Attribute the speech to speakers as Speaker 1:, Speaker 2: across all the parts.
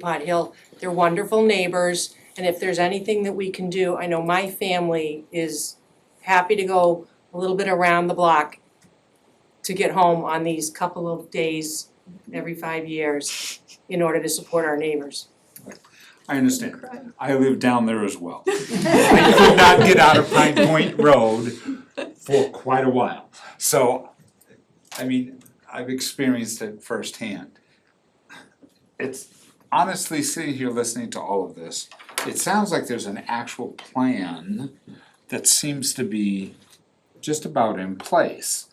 Speaker 1: Pod Hill. They're wonderful neighbors, and if there's anything that we can do, I know my family is happy to go a little bit around the block to get home on these couple of days every five years in order to support our neighbors.
Speaker 2: I understand. I live down there as well. I could not get out of Pine Point Road for quite a while. So, I mean, I've experienced it firsthand. It's honestly sitting here listening to all of this, it sounds like there's an actual plan that seems to be just about in place.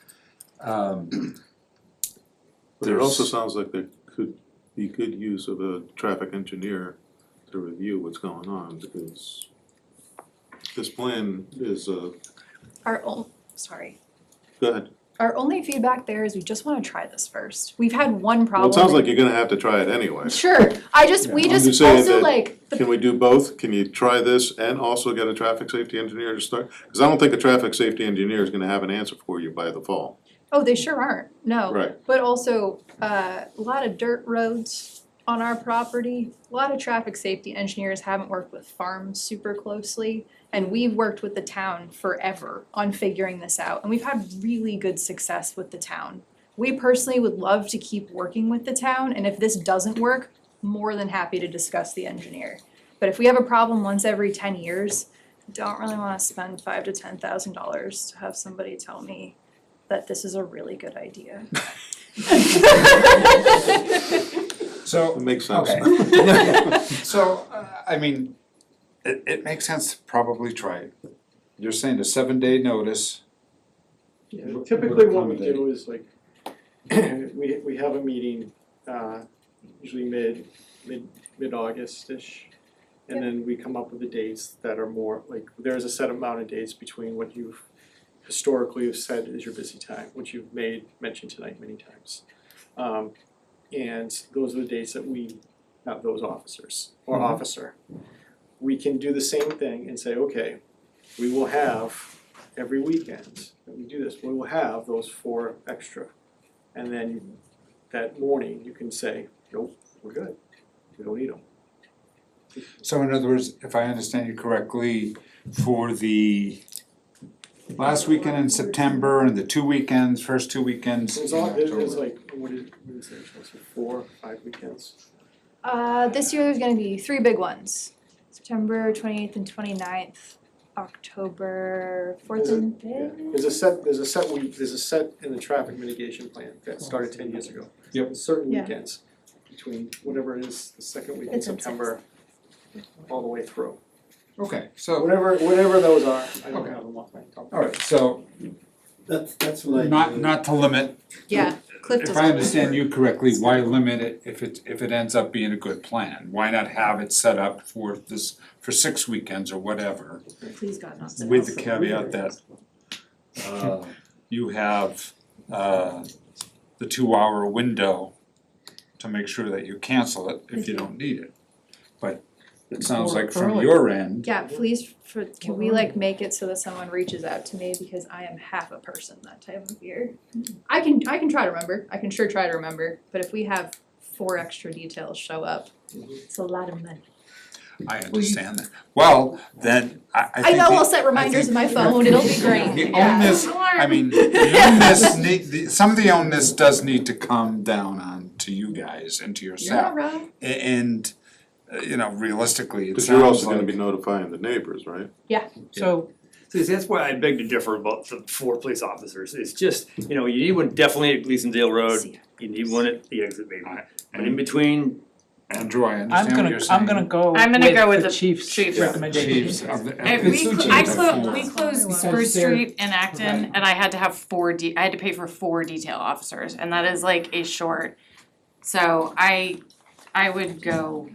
Speaker 2: Um,
Speaker 3: But it also
Speaker 2: There's-
Speaker 3: sounds like there could be good use of a traffic engineer to review what's going on, because this plan is, uh,
Speaker 4: Our own, sorry.
Speaker 3: go ahead.
Speaker 4: Our only feedback there is we just wanna try this first. We've had one
Speaker 3: Well,
Speaker 4: problem.
Speaker 3: it sounds like you're gonna have to try it anyway.
Speaker 4: Sure, I just, we
Speaker 3: I'm just
Speaker 4: just
Speaker 3: saying
Speaker 4: also
Speaker 3: that-
Speaker 4: like, the-
Speaker 3: Can we do both? Can you try this and also get a traffic safety engineer to start? Cause I don't think a traffic safety engineer is gonna have an answer for you by the fall.
Speaker 4: oh, they sure aren't,
Speaker 2: Oh.
Speaker 4: no.
Speaker 3: Right.
Speaker 4: But also, uh, a lot of dirt roads on our property, a lot of traffic safety engineers haven't worked with farms super closely. And we've worked with the town forever on figuring this out, and we've had really good success with the town. We personally would love to keep working with the town, and if this doesn't work, more than happy to discuss the engineer. But if we have a problem once every ten years, don't really wanna spend five to ten thousand dollars to have somebody tell me that this is a really good idea.
Speaker 2: So,
Speaker 3: It makes sense.
Speaker 2: Okay. So, uh, I mean, it it makes sense to probably try it. You're saying a seven day notice,
Speaker 5: Yeah,
Speaker 2: What-
Speaker 5: typically
Speaker 2: what
Speaker 5: what we
Speaker 2: accommodate?
Speaker 5: do is like, we, we have a meeting, uh, usually mid, mid, mid-August-ish. And then we come up with the dates that are more, like, there's a set amount of dates between what you've historically have said is your busy time, which you've made, mentioned tonight many times. Um, and those are the dates that we, not those officers, or
Speaker 2: Mhm.
Speaker 5: officer. We can do the same thing and say, okay, we will have every weekend that we do this, we will have those four extra. And then that morning, you can say, nope, we're good, we don't need them.
Speaker 2: so in other words, if I understand you correctly, for the last weekend in September and the two weekends, first two weekends
Speaker 5: There's
Speaker 2: in
Speaker 5: all,
Speaker 2: October.
Speaker 5: there's like, what is, what is it, it's like four, five weekends?
Speaker 4: Uh, this year there's gonna be three big ones. September twenty-eighth and 29th, October fourth
Speaker 5: Is it-
Speaker 4: and
Speaker 5: Yeah,
Speaker 4: fifth.
Speaker 5: there's a set, there's a set week, there's a set in the traffic mitigation plan that started ten years ago.
Speaker 2: Yep.
Speaker 5: Certain
Speaker 4: Yeah.
Speaker 5: weekends, between whatever it is, the second week in
Speaker 4: It's in
Speaker 5: September, all the way through.
Speaker 2: Okay, so,
Speaker 5: Whatever, whatever those are, I don't
Speaker 2: Okay.
Speaker 5: have them off my top.
Speaker 2: alright, so
Speaker 6: That's, that's what I do.
Speaker 2: not not to limit,
Speaker 4: Yeah, Cliff
Speaker 2: if
Speaker 4: does.
Speaker 2: I understand you correctly, why limit it if it if it ends up being a good plan? Why not have it set up for this, for six weekends or whatever?
Speaker 4: Please God, not
Speaker 2: With the caveat that uh, you have uh, the two-hour window to make sure that you cancel it if you don't need it. But it sounds like from your end,
Speaker 4: Yeah, please, for, can we like make it so that someone reaches out to me because I am half a person that time of year? I can, I can try to remember, I can sure try to remember, but if we have four extra details show up, it's a lot of money.
Speaker 2: I understand that. Well, then, I I
Speaker 4: I
Speaker 2: think
Speaker 4: know, I'll
Speaker 2: the-
Speaker 4: set reminders in my
Speaker 2: think-
Speaker 4: phone, it'll be great,
Speaker 2: the
Speaker 4: yeah.
Speaker 2: onus, I mean, the onus need, the- some of the onus does need to come down on to you guys and to
Speaker 4: You're not
Speaker 2: yourself.
Speaker 4: wrong.
Speaker 2: A- And, uh, you know, realistically, it
Speaker 3: Cause you're
Speaker 2: sounds
Speaker 3: also gonna
Speaker 2: like
Speaker 3: be notifying the neighbors, right?
Speaker 7: So,
Speaker 8: So that's why I beg to differ about the four police officers, it's just, you know, you need one definitely at Gleasondale Road, you need one at the exit maybe. But in between,
Speaker 2: Andrew, I
Speaker 7: I'm
Speaker 2: understand what
Speaker 7: gonna,
Speaker 2: you're saying.
Speaker 7: I'm gonna go
Speaker 9: I'm gonna go
Speaker 7: with
Speaker 9: with
Speaker 7: the
Speaker 9: the
Speaker 7: chief's
Speaker 9: chief's.
Speaker 2: Chiefs
Speaker 7: recommendation.
Speaker 2: of the.
Speaker 9: I, we,
Speaker 2: It's
Speaker 9: clo-
Speaker 2: the
Speaker 9: I
Speaker 2: chiefs.
Speaker 9: clo- we closed
Speaker 4: Because
Speaker 9: Spruce
Speaker 7: they're-
Speaker 9: Street and Acton,
Speaker 7: Right.
Speaker 9: and I had to have four de- I had to pay for four detail officers, and that is like a short. So I, I would go,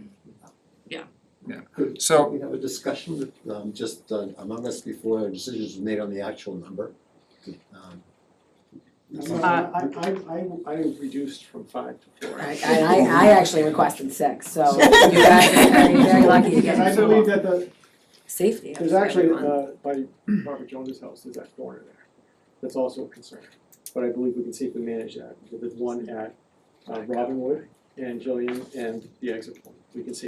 Speaker 2: So,
Speaker 6: We have a discussion with, um, just uh, among us before decisions were made on the actual number. Um,
Speaker 4: Uh,
Speaker 5: I, I, I, I reduced from five to four.
Speaker 10: I, I, I- I actually requested six, so you guys are very, very lucky to get
Speaker 5: Because I
Speaker 10: this
Speaker 5: believe
Speaker 10: law.
Speaker 5: that the,
Speaker 10: Safety
Speaker 5: there's
Speaker 10: of
Speaker 5: actually,
Speaker 10: everyone.
Speaker 5: uh, by Robert Jones's house, there's that corner there, that's also a concern. But I believe we can safely manage that, with the one at, uh, Robinwood and Jillian and the exit point. We can see